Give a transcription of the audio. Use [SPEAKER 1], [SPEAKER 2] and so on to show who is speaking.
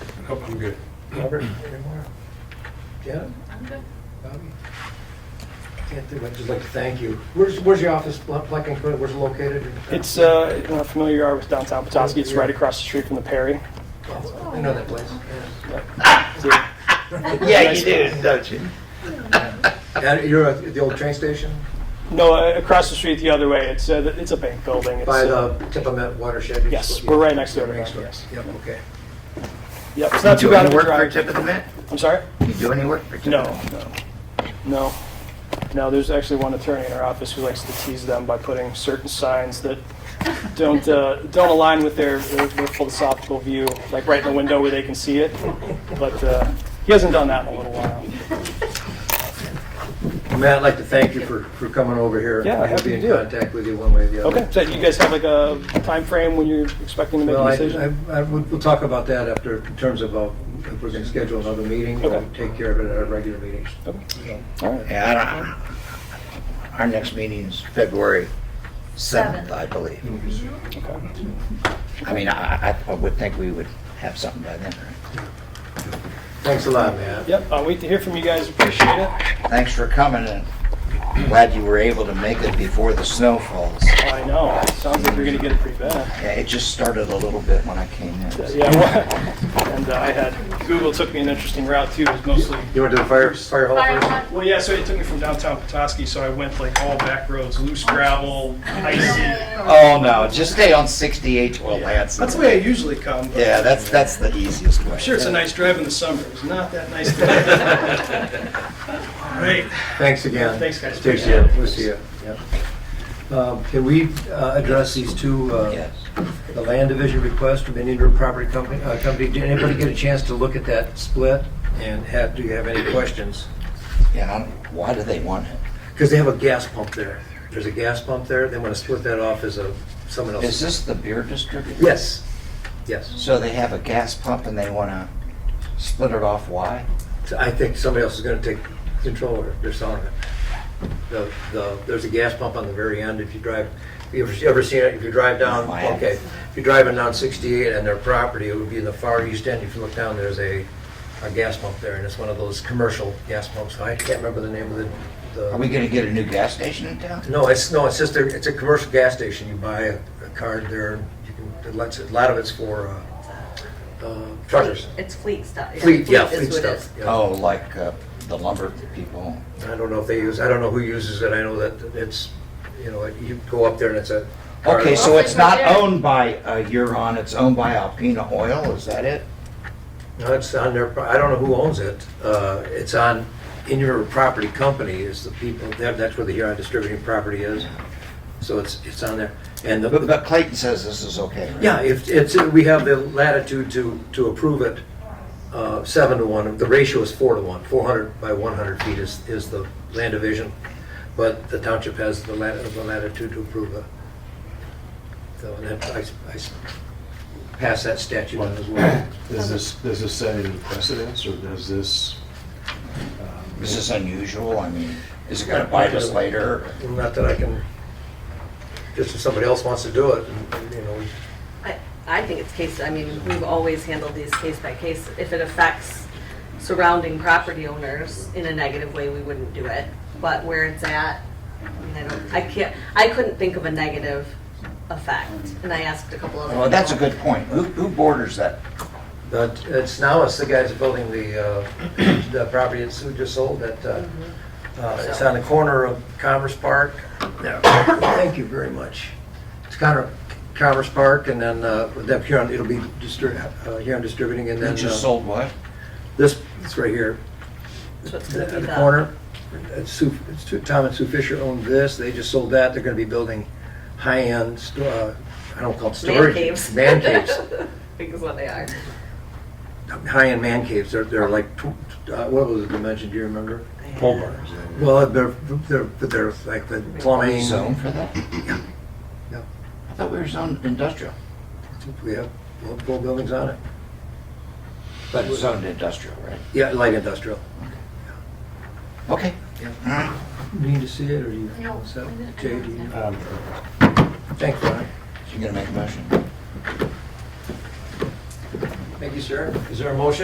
[SPEAKER 1] Nope, I'm good.
[SPEAKER 2] Robert, any more? Janet?
[SPEAKER 3] I'm good.
[SPEAKER 2] Bobby? Can't do it, I'd just like to thank you. Where's, where's your office, Pla- Plaquemine, Clinic? where's it located?
[SPEAKER 4] It's, uh, if you're not familiar you are with downtown Petoskey, it's right across the street from the Perry.
[SPEAKER 2] Oh, I know that place.
[SPEAKER 4] It's a-
[SPEAKER 5] Yeah, you do, don't you?
[SPEAKER 2] Yeah, you're at the old train station
[SPEAKER 4] No, uh, across the street the other way, it's, uh, th- it's a bank building. It's,
[SPEAKER 2] by
[SPEAKER 4] uh,
[SPEAKER 2] the Tippament watershed?
[SPEAKER 4] Yes, we're right next to it,
[SPEAKER 2] Right next to
[SPEAKER 4] yes.
[SPEAKER 2] Yep, okay.
[SPEAKER 4] Yep, it's not too
[SPEAKER 5] you do
[SPEAKER 4] bad of
[SPEAKER 5] any
[SPEAKER 4] a
[SPEAKER 5] work for
[SPEAKER 4] drive.
[SPEAKER 5] Tip of the Met?
[SPEAKER 4] I'm sorry?
[SPEAKER 5] You do any work for Tip
[SPEAKER 4] No,
[SPEAKER 5] of the Met?
[SPEAKER 4] no, no. No, there's actually one attorney in our office who likes to tease them by putting certain signs that don't, uh, don't align with their, their their philosophical view, like right in the window where they can see it. But, uh, he hasn't done that in a little while.
[SPEAKER 2] Matt, I'd like to thank you for, for coming over here.
[SPEAKER 4] Yeah, happy to do
[SPEAKER 2] We'll be in
[SPEAKER 4] it.
[SPEAKER 2] contact with you one way or the other.
[SPEAKER 4] Okay, so you guys have like a time frame when you're expecting to make
[SPEAKER 2] Well,
[SPEAKER 4] a
[SPEAKER 2] I,
[SPEAKER 4] decision?
[SPEAKER 2] I, I- we'll we'll talk about that after, in terms of, uh, if we're gonna schedule another meeting, or
[SPEAKER 4] Okay.
[SPEAKER 2] take care of it at our regular meetings.
[SPEAKER 4] Okay. All right.
[SPEAKER 5] Yeah, I don't, our next meeting is February 7th,
[SPEAKER 3] Seventh.
[SPEAKER 5] I believe.
[SPEAKER 4] Okay.
[SPEAKER 5] I mean, I, I- I would think we would have something by then, right?
[SPEAKER 2] Thanks a lot, Matt.
[SPEAKER 4] Yep, I'll wait to hear from you guys, appreciate it.
[SPEAKER 5] Thanks for coming, and glad you were able to make it before the snow falls.
[SPEAKER 4] Oh, I know, It sounds like you're gonna get it pretty bad.
[SPEAKER 5] Yeah, it just started a little bit when I came in.
[SPEAKER 4] Yeah, well, and uh, I had, Google took me an interesting route too, it was mostly,
[SPEAKER 2] You wanna do the fire, fire hall
[SPEAKER 3] Fire
[SPEAKER 2] first?
[SPEAKER 3] alarm.
[SPEAKER 4] well, yeah, so it took me from downtown Petoskey, so I went like all back roads, loose gravel, icy.
[SPEAKER 5] Oh, no, just stay on 68 Well, Lance.
[SPEAKER 4] That's the way I usually come, but
[SPEAKER 5] Yeah, that's, that's the easiest way.
[SPEAKER 4] I'm sure it's a nice drive in the summer, it's not that nice today. All right,
[SPEAKER 2] Thanks again.
[SPEAKER 4] Thanks, guys.
[SPEAKER 2] Take care, we'll see you. Um, Can we uh, address these two, uh,
[SPEAKER 5] Yes.
[SPEAKER 2] the land division request from Indian River Property Company? uh, Company? Did anybody get a chance to look at that split? And have, do you have any questions?
[SPEAKER 5] Yeah, I don't- why do they want it?
[SPEAKER 2] Because they have a gas pump there. There's a gas pump there, they want to split that off as a, someone
[SPEAKER 5] Is
[SPEAKER 2] else's.
[SPEAKER 5] this the beer distributor?
[SPEAKER 2] Yes, yes.
[SPEAKER 5] So they have a gas pump and they want to split it off, why?
[SPEAKER 2] So I think somebody else is going to take control of it, they're selling it. The, the, there's a gas pump on the very end, if you drive, you ever, you ever seen it, if you drive down,
[SPEAKER 5] No, I haven't.
[SPEAKER 2] okay. If you're driving down sixty-eight and their property, it would be in the far east end, if you look down, there's a, a gas pump there, and it's one of those commercial gas pumps, I can't remember the name of the,
[SPEAKER 5] Are we
[SPEAKER 2] the.
[SPEAKER 5] going to get a new gas station in town?
[SPEAKER 2] No, it's, no, it's just, a it's a commercial gas station, you buy a, a card there, and you can, it lets, a lot of it's for, uh, uh, truckers.
[SPEAKER 3] It's fleet stuff.
[SPEAKER 2] Fleet, yeah,
[SPEAKER 3] is
[SPEAKER 2] fleet
[SPEAKER 3] what it
[SPEAKER 2] stuff.
[SPEAKER 3] is.
[SPEAKER 2] yeah.
[SPEAKER 5] Oh, like uh, the lumber people?
[SPEAKER 2] I don't know if they use, I don't know who uses it, I know that it's, you know, you go up there and it's a.
[SPEAKER 5] Okay, so
[SPEAKER 3] Well,
[SPEAKER 5] it's
[SPEAKER 3] they
[SPEAKER 5] not
[SPEAKER 3] were there.
[SPEAKER 5] owned by uh, Huron, it's owned by Alpena Oil, is that it?
[SPEAKER 2] No, It's on their, I don't know who owns it, uh, it's on Indian River Property Company is the people, that- that's where the Huron Distributing Property is, so it's, it's on there. And
[SPEAKER 5] But
[SPEAKER 2] the,
[SPEAKER 5] but Clayton says this is okay, right?
[SPEAKER 2] yeah, if, it's, we have the latitude to, to approve it, uh, seven to one, the ratio is four to one, four hundred by one hundred feet is, is the land division, but the township has the lat, the latitude to approve it. So that, I, I pass that statute on as well.
[SPEAKER 6] Does this, does this set any precedence, or does this? um,
[SPEAKER 5] Is this unusual? I mean, is it going to bite us later?
[SPEAKER 2] Not that I can, just if somebody else wants to do it, and, you know, we-
[SPEAKER 3] I- I think it's case, I mean, we've always handled these case by case. If it affects surrounding property owners in a negative way, we wouldn't do it. But where it's at, I mean, I don't, I can't, I couldn't think of a negative effect. And I asked a couple other.
[SPEAKER 5] Well, Oh, that's a
[SPEAKER 3] people.
[SPEAKER 5] good point. Who who borders that?
[SPEAKER 2] but it's now, it's the guys building the, uh, the property that Sue just sold, that, uh, uh, it's on the corner of Commerce Park. There. Thank you very much. It's kind of Commerce Park, and then, uh, that Huron, it'll be distri- uh, Huron Distributing, and
[SPEAKER 5] Who
[SPEAKER 2] then,
[SPEAKER 5] just
[SPEAKER 2] uh,
[SPEAKER 5] sold what?
[SPEAKER 2] this, it's right here. uh,
[SPEAKER 3] So it's gonna
[SPEAKER 2] at
[SPEAKER 3] be
[SPEAKER 2] the
[SPEAKER 3] the-
[SPEAKER 2] corner. It's Sue, it's Sue- Tom and Sue Fisher owned this, they just sold that, they're gonna be building high-end, sto- uh, I don't call it
[SPEAKER 3] Man
[SPEAKER 2] storage.
[SPEAKER 3] caves.
[SPEAKER 2] Man caves,
[SPEAKER 3] Because what they are.
[SPEAKER 2] high-end man caves, they're, they're like, tw- uh, what was the dimension, do you remember?
[SPEAKER 1] Pole barns.
[SPEAKER 2] Well, they're, they're, but they're like the plumbing.
[SPEAKER 5] Zone for that?
[SPEAKER 2] Yeah.
[SPEAKER 5] I thought we were zoned industrial.
[SPEAKER 2] We have multiple buildings on it,
[SPEAKER 5] But it's zoned industrial, right?
[SPEAKER 2] yeah, light industrial.
[SPEAKER 5] Okay.
[SPEAKER 2] You Need to see it, or you?
[SPEAKER 7] No,
[SPEAKER 2] so,
[SPEAKER 7] I didn't- I
[SPEAKER 2] Jay,
[SPEAKER 7] don't
[SPEAKER 2] do you-
[SPEAKER 6] um,
[SPEAKER 2] Thanks, Ron.
[SPEAKER 5] So you're gonna make a motion?
[SPEAKER 2] Thank you, sir. Is there a motion?